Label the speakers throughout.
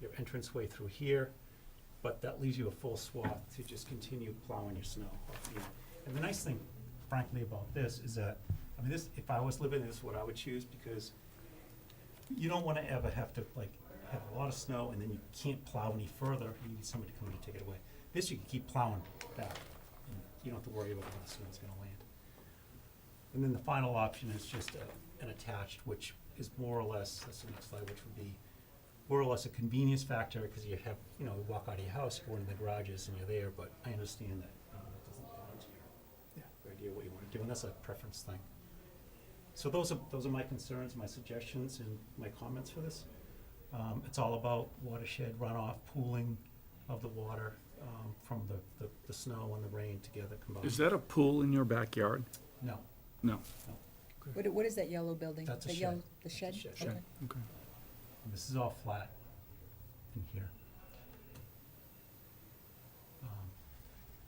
Speaker 1: your entranceway through here, but that leaves you a full swath to just continue plowing your snow. you know. And the nice thing frankly about this is that, I mean, this, if I was living in this, what I would choose, because you don't wanna ever have to, like, have a lot of snow and then you can't plow any further, you need somebody to come in and take it away. This, you can keep plowing back, and you don't have to worry about where the snow's gonna land. And then the final option is just a, an attached, which is more or less, that's the next slide, which would be more or less a convenience factor, because you have, you know, you walk out of your house, go into the garages and you're there, but I understand that, you know, that doesn't belong to your, your idea of what you wanna do, and that's a preference thing. So those are, those are my concerns, my suggestions, and my comments for this. Um, it's all about watershed runoff, pooling of the water, um, from the, the, the snow and the rain together combined.
Speaker 2: Is that a pool in your backyard?
Speaker 1: No,
Speaker 2: No.
Speaker 3: What, what is that yellow building?
Speaker 1: That's a
Speaker 3: The yellow-
Speaker 1: shed.
Speaker 3: The
Speaker 1: That's a
Speaker 3: shed?
Speaker 1: shed.
Speaker 2: Shed.
Speaker 3: Okay.
Speaker 2: Okay.
Speaker 1: And This is all flat in here. Um,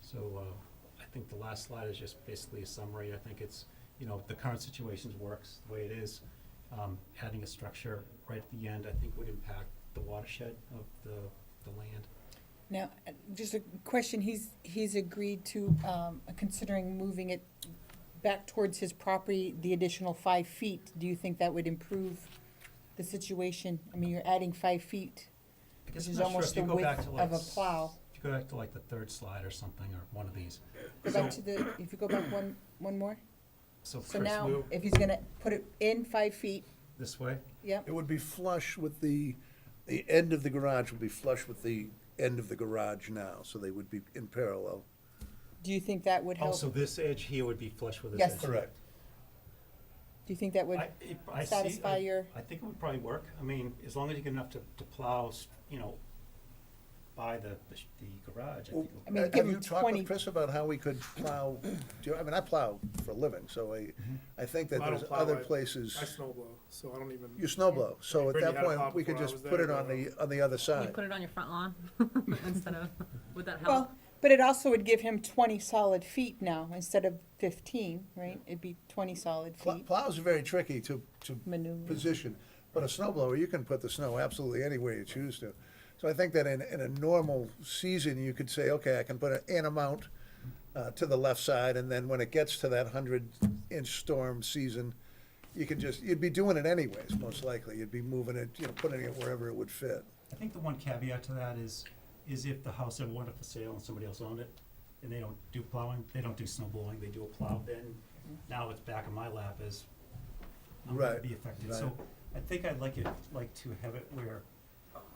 Speaker 1: So, uh, I think the last slide is just basically a summary. I think it's, you know, the current situations works the way it is. Um, adding a structure right at the end, I think would impact the watershed of the, the land.
Speaker 3: Now, uh, just a question, he's, he's agreed to, um, considering moving it back towards his property, the additional five feet. Do you think that would improve the situation? I mean, you're adding five feet,
Speaker 1: I guess
Speaker 3: which
Speaker 1: I'm
Speaker 3: is
Speaker 1: not sure
Speaker 3: almost
Speaker 1: if
Speaker 3: the
Speaker 1: you go
Speaker 3: width
Speaker 1: back to like.
Speaker 3: of a
Speaker 1: s-
Speaker 3: plow.
Speaker 1: If you go back to like the third slide or something, or one of these.
Speaker 3: Go back to the, if you go back one, one more?
Speaker 1: So
Speaker 3: So
Speaker 1: Chris,
Speaker 3: now,
Speaker 1: we'll-
Speaker 3: if he's gonna put it in five feet,
Speaker 1: this way,
Speaker 3: yep,
Speaker 4: It would be flush with the, the end of the garage would be flush with the end of the garage now, so they would be in parallel.
Speaker 3: do you think that would help?
Speaker 1: also
Speaker 3: Do
Speaker 1: this edge here would be flush with this edge.
Speaker 3: Yes. you think that would,
Speaker 1: I- if I see-
Speaker 3: satisfy
Speaker 1: I-
Speaker 3: your-
Speaker 1: I think it would probably work. I mean, as long as you get enough to, to plow, s- you know, by the, the sh- the garage, I think. it'll-
Speaker 3: I mean,
Speaker 4: Have
Speaker 3: give
Speaker 4: you
Speaker 3: them
Speaker 4: talked
Speaker 3: 20
Speaker 4: with Chris about how we could plow, do you, I mean, I plow for a living, so I, I think that
Speaker 5: I don't
Speaker 4: there's
Speaker 5: plow,
Speaker 4: other
Speaker 5: I- I
Speaker 4: places.
Speaker 5: snow blow, so I don't even.
Speaker 4: You snow blow, so at
Speaker 5: Brittany
Speaker 4: that
Speaker 5: had a
Speaker 4: point,
Speaker 5: pop
Speaker 4: we could
Speaker 5: before I
Speaker 4: just
Speaker 5: was
Speaker 4: put
Speaker 5: there, uh,
Speaker 4: it on
Speaker 5: though.
Speaker 4: the, on the other
Speaker 6: You
Speaker 4: side.
Speaker 6: put it on your front lawn instead of, would that help?
Speaker 3: Well, but it also would give him twenty solid feet now, instead of fifteen, right? It'd be twenty solid
Speaker 4: Pl-
Speaker 3: feet
Speaker 4: Plows are very tricky to, to
Speaker 3: maneuver.
Speaker 4: position, but a snow blower, you can put the snow absolutely anywhere you choose to. So I think that in, in a normal season, you could say, okay, I can put an amount uh, to the left side, and then when it gets to that hundred inch storm season, you can just, you'd be doing it anyways, most likely, you'd be moving it, you know, putting it wherever it would fit.
Speaker 1: I think the one caveat to that is, is if the house ever went up for sale and somebody else owned it, and they don't do plowing, they don't do snow blowing, they do a plow,
Speaker 3: Mm-hmm.
Speaker 1: then now it's back in my lap as I'm gonna
Speaker 4: Right,
Speaker 1: be affected. So I think I'd like it, like to have it where,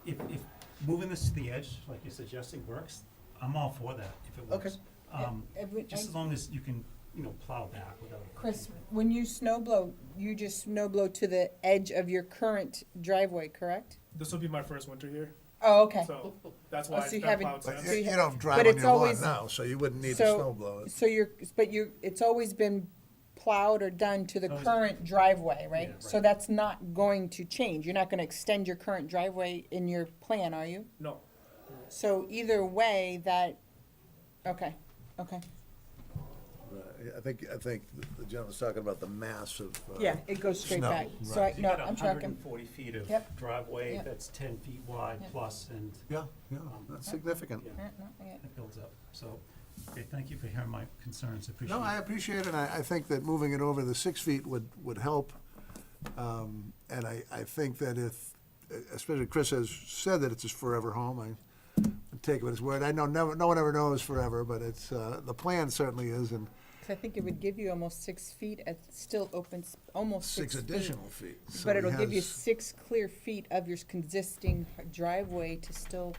Speaker 1: if, if moving this to the edge, like you're suggesting, works, I'm all for that, if it
Speaker 4: Okay.
Speaker 1: works. Um,
Speaker 3: Yeah, every-
Speaker 1: Just
Speaker 3: I-
Speaker 1: as long as you can, you know, plow back without.
Speaker 3: Chris, when you snow blow, you just snow blow to the edge of your current driveway, correct?
Speaker 5: This will be my first winter here,
Speaker 3: Oh, okay.
Speaker 5: so that's why
Speaker 3: Oh, so
Speaker 5: it's
Speaker 3: you
Speaker 5: been
Speaker 3: haven't-
Speaker 5: plowed
Speaker 3: But
Speaker 5: since.
Speaker 3: you- you
Speaker 4: don't
Speaker 3: drive But on it's your lawn always-
Speaker 4: now, so you wouldn't
Speaker 3: need a So- snow So you're, but you're, it's always been plowed or done to the
Speaker 1: Always-
Speaker 3: current driveway,
Speaker 1: Yeah,
Speaker 3: right? So
Speaker 1: right.
Speaker 3: that's not going to change. You're not gonna extend your current driveway in your plan, are you?
Speaker 5: No,
Speaker 3: So either way, that, okay, okay.
Speaker 4: I think, I think the gentleman's talking about the mass of. uh,
Speaker 3: Yeah, it goes straight
Speaker 4: Snow,
Speaker 3: back. So I,
Speaker 4: right.
Speaker 3: no, I'm
Speaker 1: You got hundred
Speaker 3: tracking.
Speaker 1: and forty feet of
Speaker 3: Yep.
Speaker 1: driveway
Speaker 3: Yep.
Speaker 1: that's ten feet wide
Speaker 3: Yep.
Speaker 1: plus, and
Speaker 4: Yeah, yeah, that's significant.
Speaker 3: Yeah, no, I get it.
Speaker 1: it builds up. So, okay, thank you for hearing my concerns, appreciate it.
Speaker 4: No, I appreciate it, and I, I think that moving it over the six feet would, would help. Um, And I, I think that if, especially Chris has said that it's his forever home, I take him at his word. I know never, no one ever knows forever, but it's, uh, the plan certainly is, and
Speaker 3: 'Cause I think it would give you almost six feet at still open, s- almost six
Speaker 4: six
Speaker 3: feet.
Speaker 4: additional feet. So
Speaker 3: But
Speaker 4: he
Speaker 3: it'll give you
Speaker 4: has-
Speaker 3: six clear feet of your existing driveway to still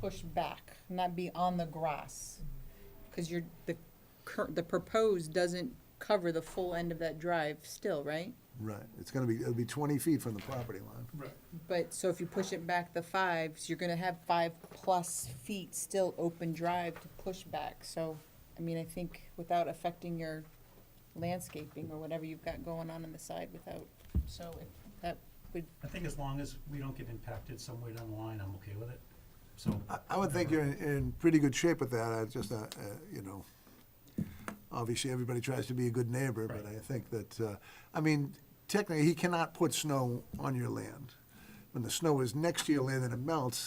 Speaker 3: push back, not be on the grass. Cause you're, the cur, the proposed doesn't cover the full end of that drive still, right?
Speaker 4: Right, it's gonna be, it'll be twenty feet from the property line.
Speaker 5: right.
Speaker 3: But, so if you push it back the fives, you're gonna have five plus feet still open drive to push back, so, I mean, I think without affecting your landscaping or whatever you've got going on on the side without, so if that would,
Speaker 1: I think as long as we don't get impacted some way down the line, I'm okay with it. So,
Speaker 4: I, I would think you're in, in pretty good shape with that, I just, uh, uh, you know, obviously, everybody tries to be a good neighbor, but I think that, uh, I mean, technically, he cannot put snow on your land. When the snow is next to your land and it melts,